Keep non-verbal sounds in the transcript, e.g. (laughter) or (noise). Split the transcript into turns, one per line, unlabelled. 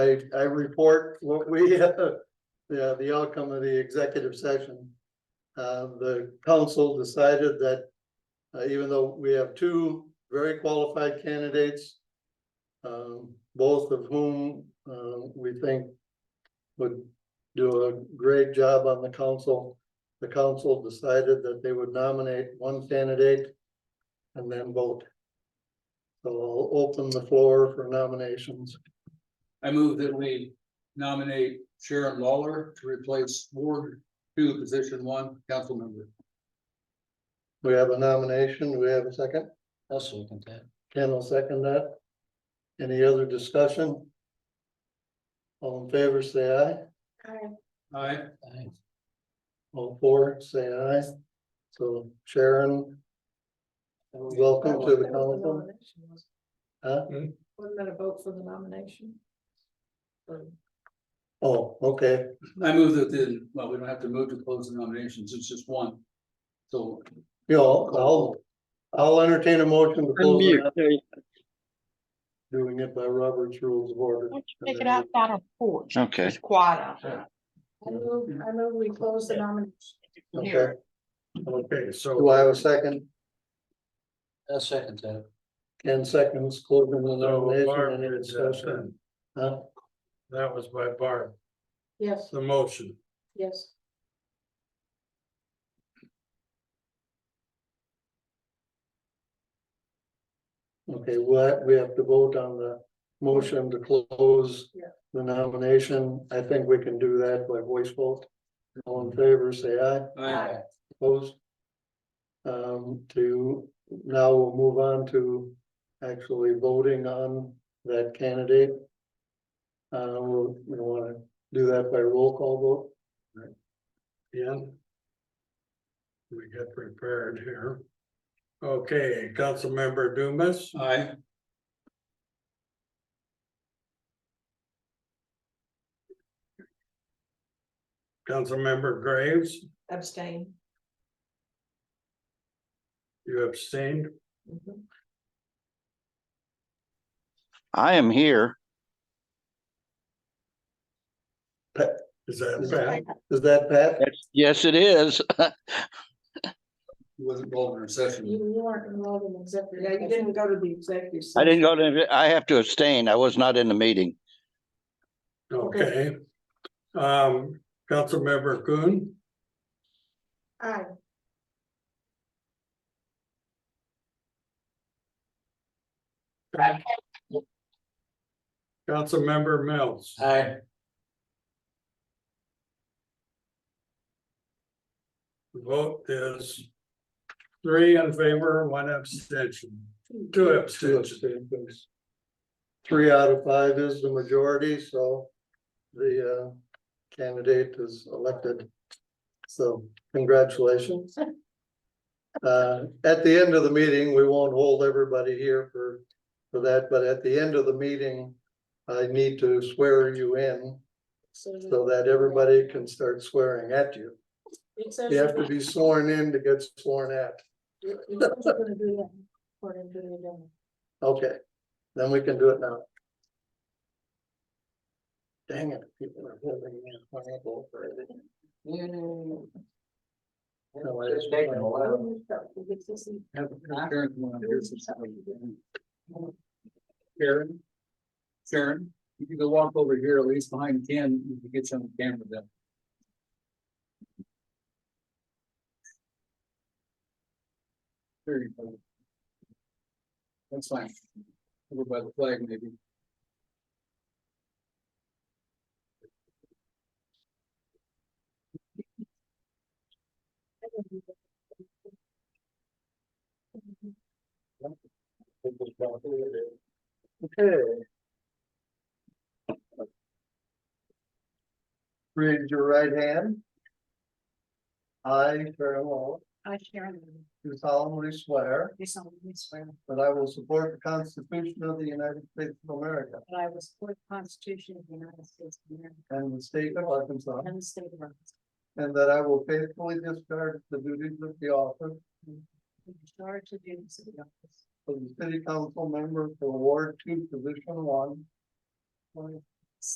I, I report what we, (laughs) uh, the, the outcome of the executive session. Uh, the council decided that, uh, even though we have two very qualified candidates, um, both of whom, uh, we think would do a great job on the council. The council decided that they would nominate one candidate and then vote. So I'll open the floor for nominations.
I move that we nominate Sharon Lawler to replace Ward two, position one, council member.
We have a nomination. Do we have a second?
I'll second that.
Ken will second that. Any other discussion? All in favor, say aye.
Aye.
All four, say aye. So Sharon, welcome to the council. Huh?
Wasn't that a vote for the nomination? Or-
Oh, okay.
I move that the, well, we don't have to move to close the nominations, it's just one. So
You know, I'll, I'll entertain a motion to close. the-
Unmute, there you-
Doing it by Robert's Rules of Order.
Why don't you Take it outside on the porch.
Okay.
It's quiet out there.
I move, I move we close the nomination.
Okay,
Okay, so
do I have a second?
I'll second that.
Ken seconds, closing the
So Barb
nomination, any
did that
discussion?
then.
Huh?
that was by Barb,
Yes,
the motion.
yes.
Okay, what, we have to vote on the motion to close
Yeah.
the nomination. I think we can do that by voice vote. All in favor, say aye.
Aye.
Opposed? Um, to, now we'll move on to actually voting on that candidate. Uh, we'll, we wanna do that by roll call
Ian? We get prepared here. Okay, Councilmember Dumas,
Aye.
Councilmember Graves,
Abstain.
you abstained.
Mhm.
I am here.
Is that bad?
vote. Is that Pat?
Yes, it is. (laughs)
He wasn't involved in our session.
You, you weren't involved in executive. Yeah, you didn't go to the executive.
I didn't go to, I have to abstain. I was not in the meeting.
Okay. Um, Councilmember Coon,
(laughs) Aye.
Councilmember Mills,
Aye.
vote is three in favor, one abstention, two
Two
abstentions.
abstentions. Three out of five is the majority, so the uh candidate is elected. So congratulations. Uh, at the end of the meeting, we won't hold everybody here for for that, but at the end of the meeting, I need to swear you in so that everybody can start swearing at you.
It says-
You have to be sworn in to get sworn at.
it- it says we're gonna do that according to the agenda.
Okay, then we can do it now. Dang it, people are holding in pineapple for it. No, I just-
We'll get to see.
Sharon? Sharon, if you could walk over here, at least behind Ken, you could get some camera then. There you go. That's fine. Over by the flag, maybe.
Raise your right hand. I, Sharon Lowell,
I, Sharon,
do solemnly swear
do solemnly swear
that I will support the Constitution of the United States of America
that I will support the Constitution of the United States of America
and the state of Arkansas,
and the state of Arkansas,
and that I will faithfully discharge the duties of the office
and discharge the duties of the office
of the city council member for Ward Two, Position One,
for